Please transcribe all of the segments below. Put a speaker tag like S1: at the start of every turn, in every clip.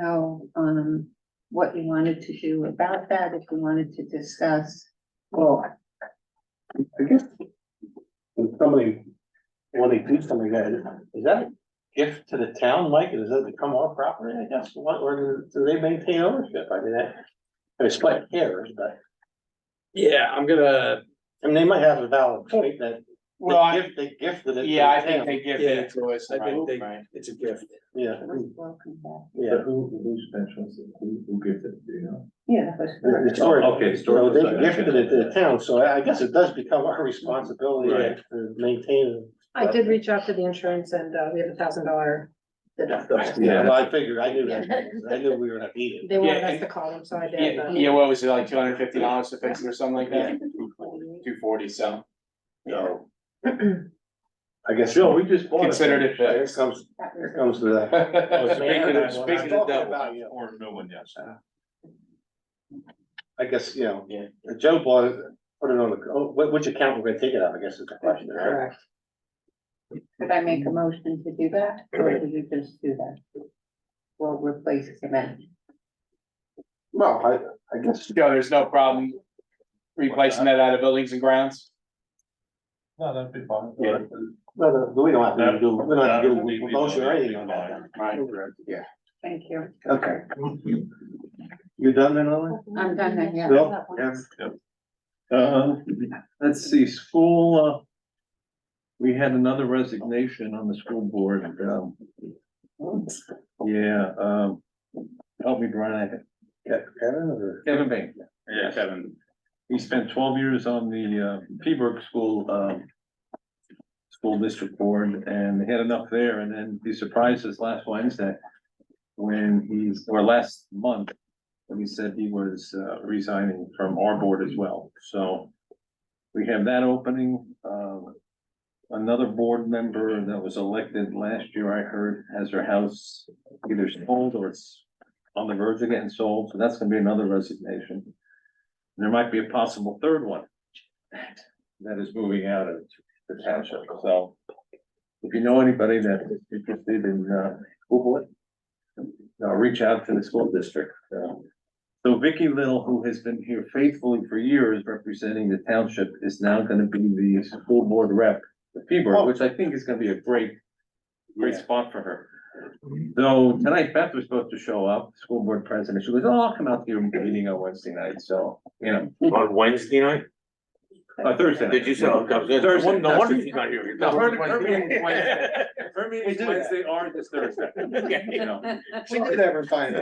S1: how, um, what you wanted to do about that, if you wanted to discuss.
S2: Well, I- I guess when somebody, when they do something like that, is that a gift to the town, Mike? Does that become our property, I guess? What, or do they maintain ownership? I mean, that, I mean, split hairs, but,
S3: Yeah, I'm gonna,
S2: I mean, they might have a valid point that they
S4: Well, I,
S2: gift, they gifted it. to
S4: yeah, I
S2: the
S4: think
S2: town.
S4: they give
S3: Yeah,
S4: it to us,
S3: I think
S4: right,
S3: they-
S4: right.
S3: it's a gift.
S2: Yeah,
S1: Welcome back.
S2: yeah.
S5: Who, who specials, who, who gives it, do you know?
S1: Yeah, that was
S2: The-
S1: good.
S2: the storage-
S5: okay, storage,
S2: So They
S5: okay.
S2: gifted it to the town, so I I guess it does become our responsibility
S3: Right.
S2: to maintain.
S6: I did reach out to the insurance and uh, we have a thousand dollar deductible.
S5: Yeah.
S2: Yeah, I figured, I knew that, I knew we were gonna need it.
S6: They wanted
S4: Yeah,
S6: us
S4: and-
S6: to call them, so I did.
S4: Yeah,
S6: but-
S4: yeah, what was it, like two hundred fifty dollars to fix it or something like that? Two forty, so.
S2: So. I guess, Bill,
S5: we just
S4: Considered it
S2: here
S4: fixed.
S2: comes,
S1: That
S2: here
S1: was-
S2: comes to the.
S4: Speaking
S2: Man,
S4: of, speaking of
S2: talking
S4: double.
S2: about you.
S5: Or no one, yes.
S2: I guess, you know,
S4: Yeah.
S2: the Joe bought, it, put it on the, oh, wh- which account we're gonna take it out, I guess is the question, right?
S6: Correct.
S1: Could I make a motion to do that, or did you just do that? Well, replace cement.
S2: Well, I, I guess,
S4: Joe, there's no problem replacing that out of buildings and grounds?
S5: No, that'd be fine.
S4: Yeah.
S2: no, no, we don't have to
S5: That-
S2: do, we don't have to
S5: that would be-
S2: do a motion or anything on that.
S4: Right.
S2: Yeah,
S1: Thank you.
S2: okay. You done then, Ellen?
S1: I'm done then, yeah.
S2: Bill? Yeah.
S5: Uh, let's see, school, uh, we had another resignation on the school board, um, yeah, um, help me, Brian,
S2: Ke- Kevin or?
S5: Kevin Bain.
S4: Yeah, Kevin.
S5: He spent twelve years on the uh Pembroke School um. School District Board and they had enough there and then he surprised us last Wednesday. When he's, or last month, when he said he was uh resigning from our board as well, so. We have that opening, um. Another board member that was elected last year, I heard, has her house either sold or it's. On the verge of getting sold, so that's gonna be another resignation. There might be a possible third one. That is moving out of the township, so. If you know anybody that is interested in, uh, Google it. Uh, reach out to the school district, uh. So Vicky Little, who has been here faithfully for years representing the township, is now gonna be the school board rep. The P-Board, which I think is gonna be a great, great spot for her. Though tonight Beth was supposed to show up, school board president, she goes, oh, I'll come out to your meeting on Wednesday night, so, you know.
S3: On Wednesday night?
S5: Uh, Thursday.
S3: Did you say? No
S5: Thursday.
S3: wonder she's not here.
S5: No, her, her meeting is Wednesday. Her meeting is Wednesday or this Thursday.
S3: Okay.
S5: You know.
S2: We did ever find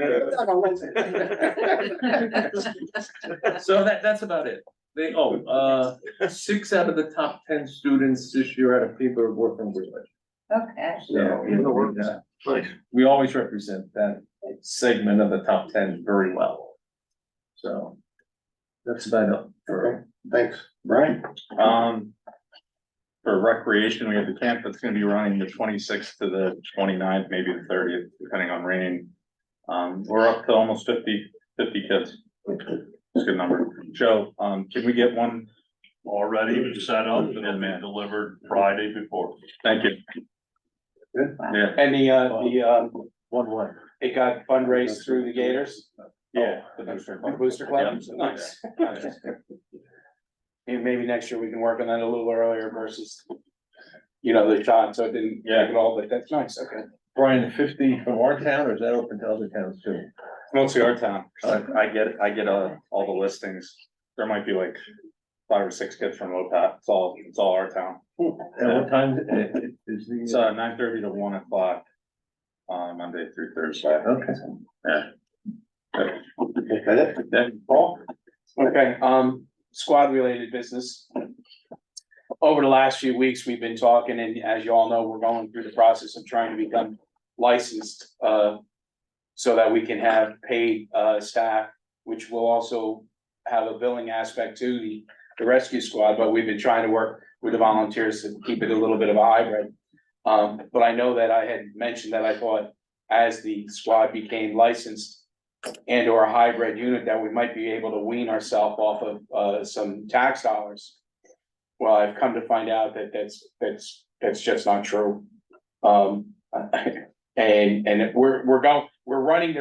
S5: So that, that's about it. They, oh, uh, six out of the top ten students this year out of people are working with it.
S1: Okay.
S5: So, you know, we, uh,
S2: Nice.
S5: we always represent that segment of the top ten very well. So that's about it for
S2: Thanks, Brian?
S7: Um. For recreation, we have the camp that's gonna be running the twenty-sixth to the 29th, maybe the thirtieth, depending on rain. Um, we're up to almost 50 50 kids. It's a good number. Joe, um, can we get one?
S8: Already set up and it'll be delivered Friday before.
S7: Thank you. Yeah,
S4: And the, uh, the, uh,
S5: one, one.
S4: it got fundraised through the Gators,
S7: yeah.
S5: Oh,
S4: the Booster Club, nice. And maybe next year we can work on that a little earlier versus, you know, the time, so it didn't
S7: Yeah.
S4: take it all, but that's nice, okay.
S5: Brian, fifty from our town or is that open to other towns too?
S7: Mostly our town. I get, I get, uh, all the listings. There might be like five or six kids from OPAT. It's all, it's all our town.
S5: At what time i- i- is the?
S7: It's uh nine thirty to one o'clock. Uh, Monday through Thursday.
S5: Okay.
S2: Okay,
S7: Then Paul?
S4: Okay, um, squad related business. Over the last few weeks, we've been talking and as you all know, we're going through the process of trying to become licensed, uh. So that we can have paid, uh, staff, which will also have a billing aspect to the, the rescue squad, but we've been trying to work with the volunteers to keep it a little bit of a hybrid. Um, but I know that I had mentioned that I thought as the squad became licensed, and or a hybrid unit that we might be able to wean ourselves off of uh some tax dollars. Well, I've come to find out that that's that's that's just not true. Um, and and we're we're going, we're running the